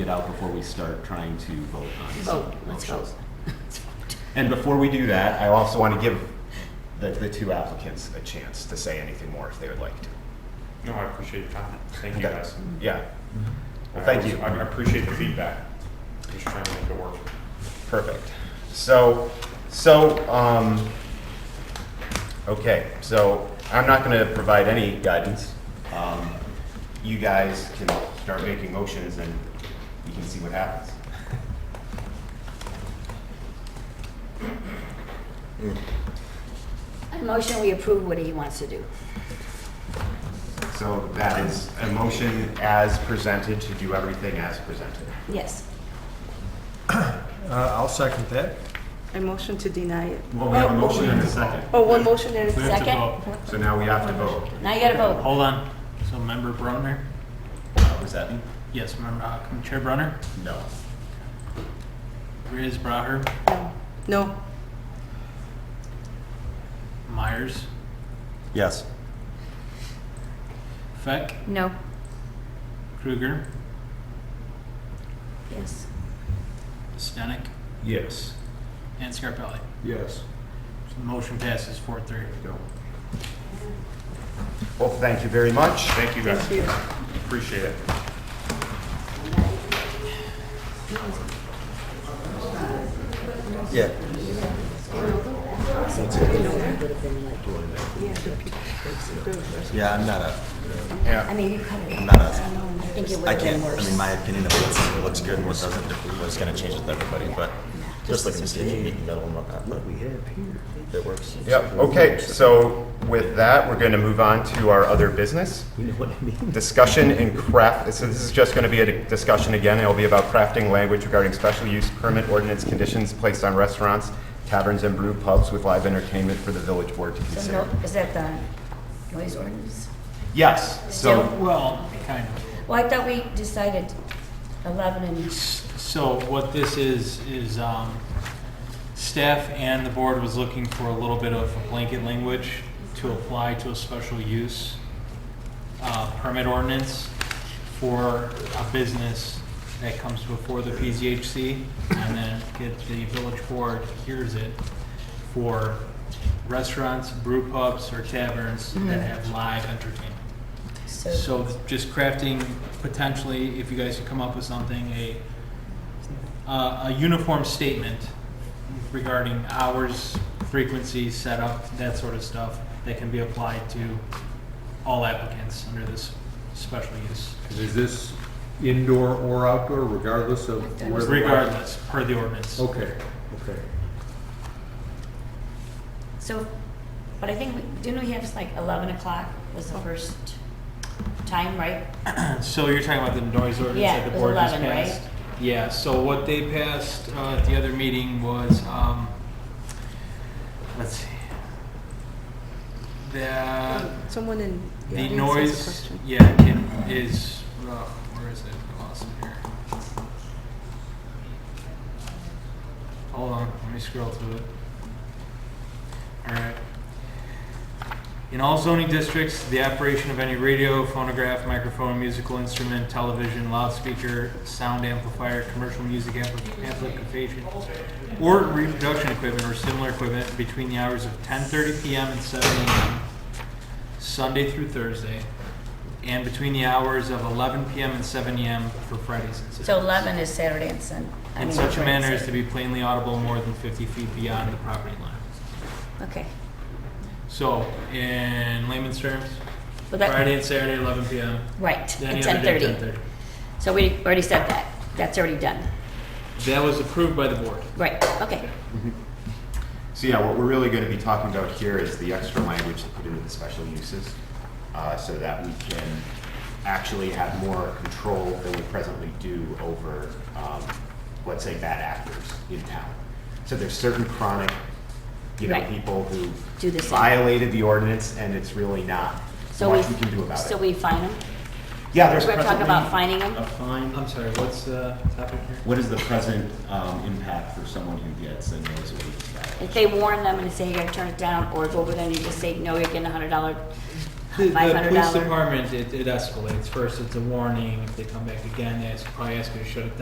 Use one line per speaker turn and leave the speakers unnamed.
it out before we start trying to vote on
Vote,
some
let's vote.
motions. And before we do that, I also want to give the, the two applicants a chance to say anything more if they would like to.
No, I appreciate your comment. Thank you
Okay.
guys.
Yeah. Well,
I
thank
was-
you.
I appreciate the feedback. Just trying to make it work.
Perfect. So, so, um, okay, so I'm not gonna provide any guidance. Um, you guys can start making motions and you can see what happens.
I motion we approve what he wants to do.
So that is a motion as presented to do everything as presented.
Yes.
Uh, I'll second that.
I motion to deny it.
Well, we have a motion and a second,
Oh, one motion and a
We have to
Second.
vote.
so now we have to vote.
Now you gotta vote.
Hold on. So member Brunner?
Uh, Was that?
Yes, member, uh, Commissioner Brunner?
No.
Riz Braher?
No. No.
Myers?
Yes.
Feck?
No.
Kruger?
Yes.
Stenick?
Yes.
And Scarpelli?
Yes.
So the motion passes four three.
Well, thank you very much.
Thank you guys.
Thank you.
Appreciate it.
Yeah. Yeah, I'm not a,
I mean, you covered it.
I'm not a,
I think it
I
would've been
can't, I
worse.
mean, my opinion of what looks good and what doesn't, was gonna change with everybody, but just looking to see if you meet in the middle and whatnot, but it works.
Yep, okay, so with that, we're going to move on to our other business. Discussion and craft, so this is just going to be a di- discussion again, it'll be about crafting language regarding special use permit ordinance conditions placed on restaurants, taverns, and brew pubs with live entertainment for the village board to
So
consider.
no- Is that the noise ordinance?
Yes, so,
Well, kind of.
Well, I thought we decided 11 and,
So what this is, is, um, staff and the board was looking for a little bit of blanket language to apply to a special use uh, permit ordinance for a business that comes before the PZHC, and then get the village board hears it for restaurants, brew pubs, or taverns that have live entertainment.
so,
So just crafting potentially, if you guys could come up with something, a, uh, a uniform statement regarding hours, frequency, setup, that sort of stuff, that can be applied to all applicants under this special use.
And is this indoor or outdoor regardless of where? the-
Regardless, per the ordinance.
Okay, okay.
so, but I think, we- didn't we have like 11 o'clock was the first time, right?
So you're talking about the noise ordinance
Yeah,
that
it
the
was
board just
11, right?
passed? Yeah, so what they passed uh, at the other meeting was, um, let's see. The,
Someone in.
the
audience has a
noise,
question.
yeah, can, is, uh, where is it? I lost it here. Hold on, let me scroll through it. Alright. In all zoning districts, the operation of any radio, phonograph, microphone, musical instrument, television, loudspeaker, sound amplifier, commercial music ampli- amplification, or reproduction equipment or similar equipment between the hours of 10:30 PM and 7 AM, Sunday through Thursday, and between the hours of 11 PM and 7 AM for Fridays and Saturdays.
So 11 is Saturday and Sun. I
In
mean,
such a
Friday and
manner as to
Saturday.
be plainly audible more than 50 feet beyond the property line.
Okay.
So, in layman's terms,
Well, that-
Friday and Saturday, 11 PM.
Right,
Any
at
other day,
10:30. So we already said that. That's already done.
10:30. That was approved by the board.
Right, okay.
so yeah, what we're really going to be talking about here is the extra language to put into the special uses, uh, so that we can actually have more control than we presently do over, um, let's say, bad actors in town. So there's certain chronic, you know,
Right.
people who
Do the same.
violated the ordinance, and it's really not
So
much we can do about
So
it. E.
we fine them?
Yeah, there's
We're talking about
presently
fining them?
a fine
I'm sorry, what's the topic here?
What is the present um, impact for someone who gets a noise ordinance violation?
If they warn them and say, you gotta turn it down, or go over there and you just say, no, you're getting a hundred dollar,
The, the
five hundred
police
dollar.
department, it, it escalates. First, it's a warning. If they come back again, they ask- probably ask you to shut it down.